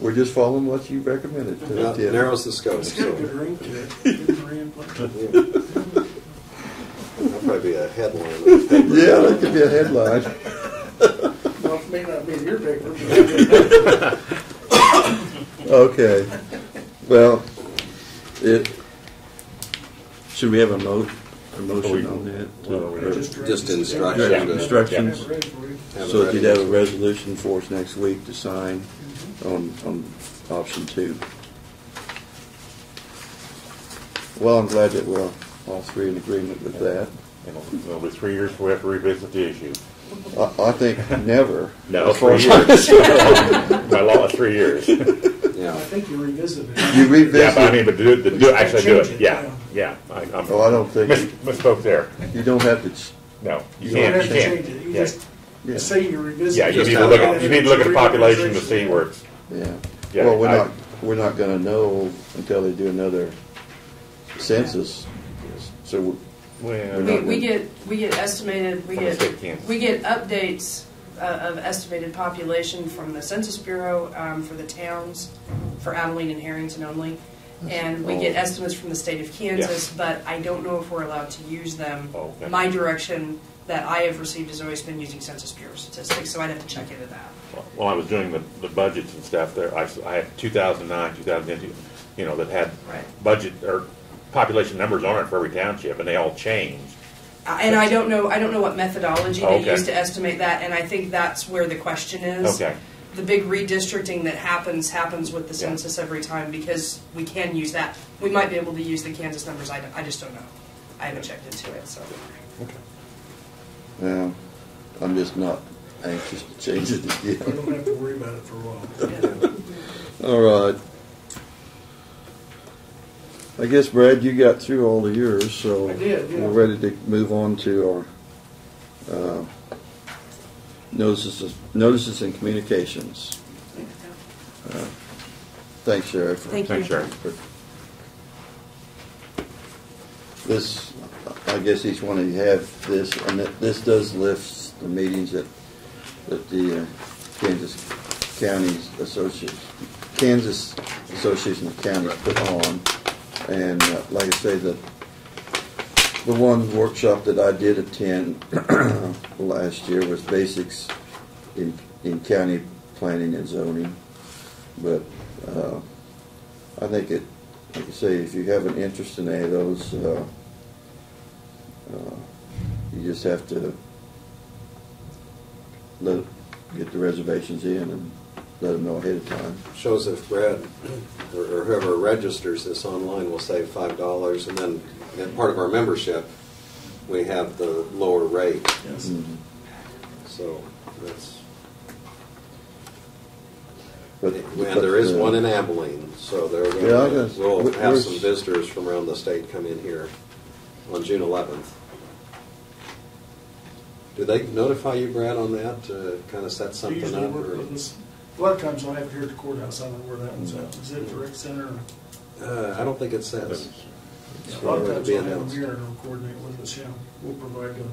We're just following what you recommended. Yeah, Tim. Narrows the scope, It's got a good so. ring to it. Good ring, but- yeah. That'll probably be a headline. in the paper. Yeah, that could be a headline. Well, it may not be in your paper, but it Okay. Well, it, should we have a mo, a motion on that? to- Well, we- just. Just Yeah, instruction. to- Instructions, Have it ready for you. have it so if ready. you'd have a resolution Mm-hmm. for us next week to sign on, on option two. Well, I'm glad that we're all three in agreement with that. It'll be three years before we have to revisit the issue. I, I think never. No, As far three as- By law, it's three years. Yeah, I Yeah, think you revisited You it. revisit. but I mean, but do, it- do, it- actually do Change it, it, yeah, yeah. I- I'm- Oh, I don't think- Mis- Misspoke there. You don't have to, ch- No, you You don't You can't, have you to change can't. it. You Yeah. just yeah, say you revisited. Yeah, you Just need to have look it. at, you need to look at the population to see where it's, yeah. Yeah, Well, we're I- not, we're not gonna know until they do another census, so we- well, We, we get, we get estimated, we From the state get, camps. we get updates uh, of estimated population from the Census Bureau, um, for the towns, for Abilene and Harrington only. And we get Oh. estimates from the state of Kansas, but I don't know if we're allowed to use them. Oh, okay. My direction that I have received has always been using Census Bureau statistics, so I'd have to check into that. while I was doing the, the budgets and stuff there, I, s- I had two thousand nine, two thousand ten, you know, that had Right. budget, or population numbers on it for every township, and they all changed. Uh, And I don't know, I don't know what methodology they Okay. use to estimate that, and I think that's where the question is. Okay. The big redistricting that happens, happens with the Yeah. census every time, because we can use that. We might be able to use the Kansas numbers, I, don't- I just don't know. I haven't checked into it, so. Well, I'm just not anxious to change it We again. don't have to worry about it for a while. All right. I guess, Brad, you got through all of yours, so. I did, yeah. We're ready to move on to our uh, notices, notices and communications. Uh, Thanks, Sheriff. for- Thank you. Thanks, Sharon. This, I guess each one of you have this, and it- this does lift the meetings that, that the uh, Kansas Counties Association, Kansas Association of Counties put on. And uh, like I say, the, the one workshop that I did attend last year was basics in, in county planning and zoning. But, uh, I think it, like you say, if you have an interest in any of those, uh, uh, you just have to let, get the reservations in and let them know ahead of time. shows if Brad or or whoever registers this online will save five dollars, and then, and part of our membership, we have the lower rate, Yes. Mhm. so that's, But- and there is but, uh, one in Abilene, so there, Yeah, I guess. we'll have Where's- some visitors from around the state come in here on June eleventh. Do they notify you, Brad, on that, to kind of set We something usually up? work or- with this, a lot of times I'll have it here at the courthouse, I don't know where that one's at, is it at the rec center? Uh, I don't think it says. A lot of It'll times be I'll have them announced. here and I'll coordinate with us, yeah, we'll provide the,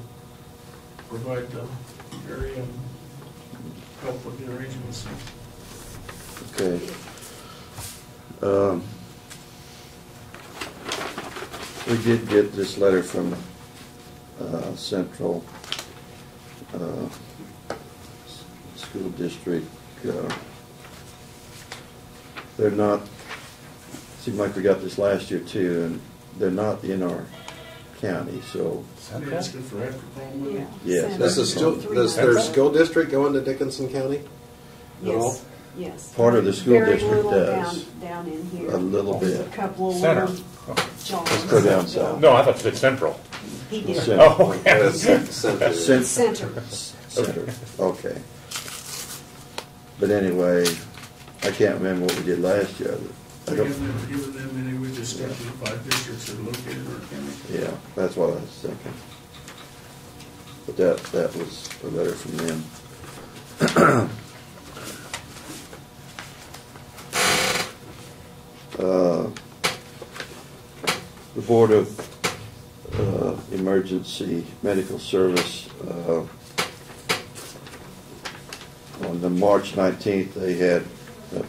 provide the area and help with the arrangements. Okay. Um, We did get this letter from uh, Central uh, S- School District. uh, They're not, seemed like we got this last year too, and they're not in our county, so, Maybe it's good for after prom, wouldn't it? yes. This is still, does their school district go into Dickinson County? at all? Yes, yes. Part of the school Very district little does. down- Down in here. A little Just bit. A couple of Center. little jogs. Let's go down south. No, I thought you said central. He did. Center. Oh, Or okay. is it central? Cent- Center. Center, okay. But anyway, I can't remember what we did last year. I We have don't- never given them any, we just got the five districts that are located in our county. Yeah, that's what I was thinking. But that, that was a letter from them. Uh, The Board of uh, Emergency Medical Service, uh, on the March 19th, they had